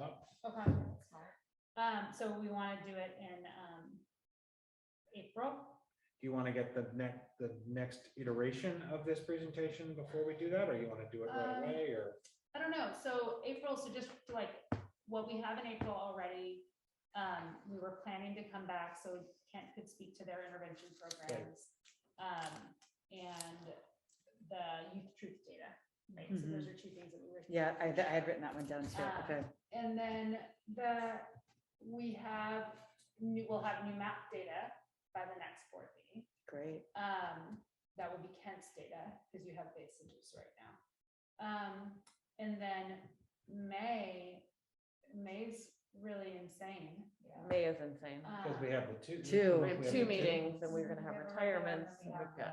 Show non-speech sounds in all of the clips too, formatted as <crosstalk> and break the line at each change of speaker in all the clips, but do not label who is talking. up.
Okay, that's fine. Um, so we want to do it in, um, April,
Do you want to get the next, the next iteration of this presentation before we do that, or you want to do it right
Um,
away, or?
I don't know, so April, so just like what we have in April already, um, we were planning to come back, so Kent could speak to their intervention programs. Um, and the youth truth data, right, so those are two things that we were.
Mm-hmm. Yeah, I, I had written that one down too,
Ah.
okay.
And then the, we have, new we'll have new map data by the next board meeting.
Great.
Um, that will be Kent's data, because you have base and juice right now. Um, and then May, May's really insane. Um,
May is insane.
Uh,
Because we have the two.
Two.
We
We
have
have
the
two meetings and we're
We
gonna have
have a regular and
retirements
we
and we've
have
got,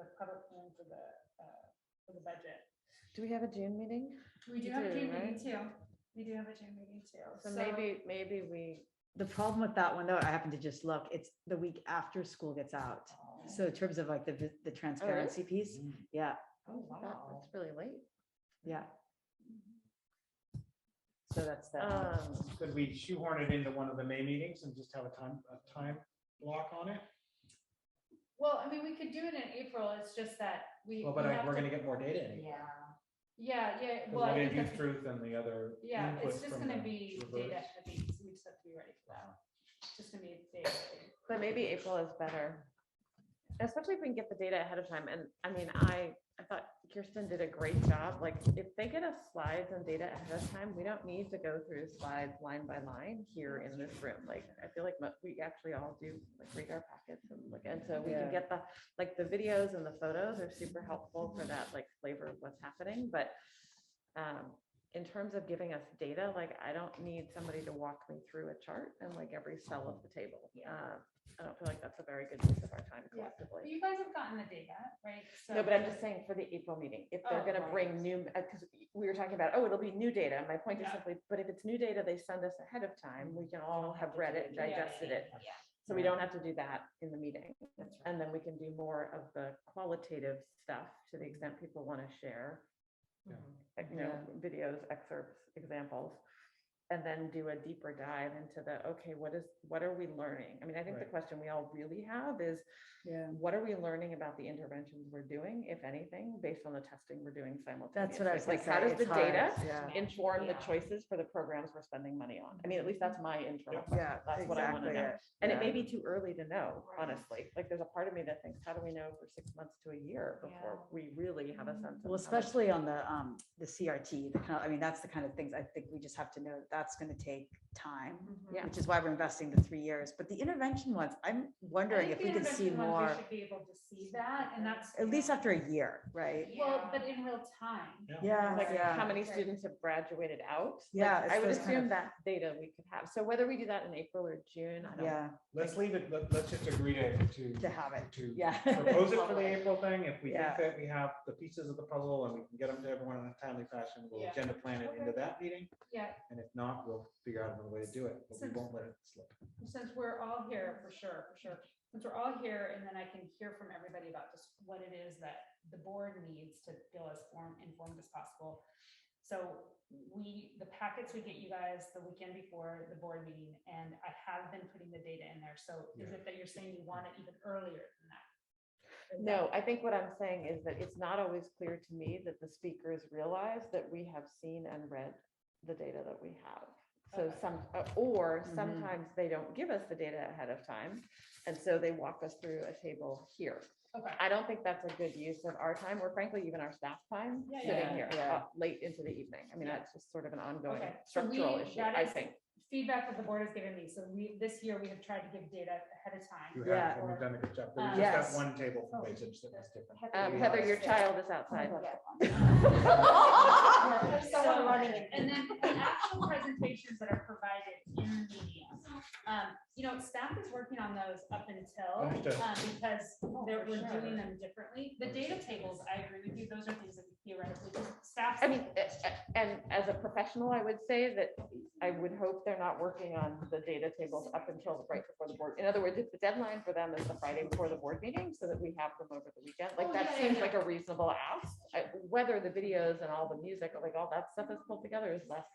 The public plan for the, uh, for the budget.
do we have a June meeting?
We do
You
have a
do,
June meeting
right?
too. We do have a June meeting too.
So maybe, maybe we,
The problem with that one though, I happened to just look, it's the week after school gets out.
Oh,
So in terms of like the, vi- the transparency piece, yeah,
Oh,
that- that's really late.
yeah. So that's that. one.
Um,
Could we shoehorn it into one of the May meetings and just have a time, a time block on it?
Well, I mean, we could do it in April. It's just that we.
Well, but
we
I-
have
we're
to-
gonna get more data anyway.
Yeah.
Yeah, yeah.
Because
Well, I
we'll
think
get youth
that's-
truth and the other.
Yeah,
input
it's just
from
gonna
the
be
reverse.
data at the beats. We just have to be ready for that. It's just gonna be a data. thing.
But maybe April is better. Especially if we can get the data ahead of time. And I mean, I, I thought Kirsten did a great job. Like, if they get us slides and data ahead of time, we don't need to go through slides line by line here in this room. Like, I feel like mo- we actually all do like read our packets and look, and so we
Yeah.
can get the, like, the videos and the photos are super helpful for that, like, flavor of what's happening, but um, in terms of giving us data, like, I don't need somebody to walk me through a chart and like every cell of the table. Um, I don't feel like that's a very good use of our time
Yeah. But
collectively.
You guys have gotten the data, right?
No, but I'm just saying for the April meeting, if
Oh,
they're gonna
right.
bring new, because we were talking about, oh, it'll be new data. My point is
Yeah.
simply, but if it's new data, they send us ahead of time, we can all have read it, and
Yeah.
digested it.
Yeah.
So we don't have to do that in the meeting.
That's
And then we can do more of the qualitative stuff to the extent people want to share.
Yeah.
like, You know,
Yeah.
videos, excerpts, examples. And then do a deeper dive into the, okay, what is, what are we learning? I mean, I think the
Right.
question we all really have is,
Yeah,
what are we learning about the interventions we're doing, if anything, based on the testing we're doing simultaneously?
that's what I was like.
Like, how does the data
Yeah,
inform the
Yeah.
choices for the programs we're spending money on? I mean, at least that's my internal
Yeah.
question.
yeah,
That's what I wanna
exactly.
know.
it,
And it may
yeah.
be too early to know,
Right.
honestly. Like, there's a part of me that thinks, how do we know for six months to a year before
Yeah.
we really have a sense?
Mm-hmm.
of
Well,
how much-
especially on the, um, the CRT, the kind of, I mean, that's the kind of things I think we just have to know, that's gonna take time.
Mm-hmm.
Yeah.
Which is why we're investing the three years, but the intervention ones, I'm wondering
I
if
think
we
the
could see
intervention ones,
more,
We should be able to see that and that's.
at least after a year, right?
Well, but in real time.
Yeah,
Like, how
yeah,
many
Right.
students have graduated out? Like,
Yeah, it's
I would
those kind
assume
of-
that data we could have. So whether we do that in April or June, I don't. <laughs>
yeah,
Let's leave it, let, let's just agree to, to.
to have it,
To
yeah.
propose it for
<laughs>
the April thing. If we think
Yeah.
that we have the pieces of the puzzle and we can get them to everyone in a timely fashion, we'll
Yeah.
agenda plan it into
Okay.
that meeting.
Yeah,
And if not, we'll figure out another way to do it, but we
Since-
won't let it slip.
since we're all here, for sure, for sure, since we're all here, and then I can hear from everybody about just what it is that the board needs to feel as form, informed as possible. So we, the packets we get you guys the weekend before the board meeting, and I have been putting the data in there, so is it that you're saying you want it even earlier than that? Is that-
No, I think what I'm saying is that it's not always clear to me that the speakers realize that we have seen and read the data that we have. So
Okay.
some, uh, or
Mhm.
sometimes they don't give us the data ahead of time. And so they walk us through a table here.
Okay,
I don't think that's a good use of our time or frankly even our staff time
Yeah,
sitting
yeah,
here
yeah.
uh, late into the evening. I mean,
Yeah.
that's just sort of an ongoing
Okay, so we-
structural issue,
that
I
is-
think.
feedback that the board has given me, so we, this year, we have tried to give data ahead of
You
time.
have,
Yeah.
and we've done a good job.
Um,
There's just
Yes.
that one table for
Oh.
Wasatch that was different.
Um,
We
Heather,
have-
your child is outside.
There's someone running. And then the actual presentations that are provided in the media. Um, you know, staff is working on those up until,
Understood.
um, because they're,
for
we're
sure.
doing them differently. The data tables, I agree with you, those are things that theoretically, staff.
I mean, a- a- and as a professional, I would say that I would hope they're not working on the data tables up until right before the board. In other words, if the deadline for them is the Friday before the board meeting, so that we have them over the weekend, like
Oh,
that
yeah, yeah,
seems
yeah.
like a reasonable ask. I- Whether the videos and all the music, like all that stuff is pulled together is less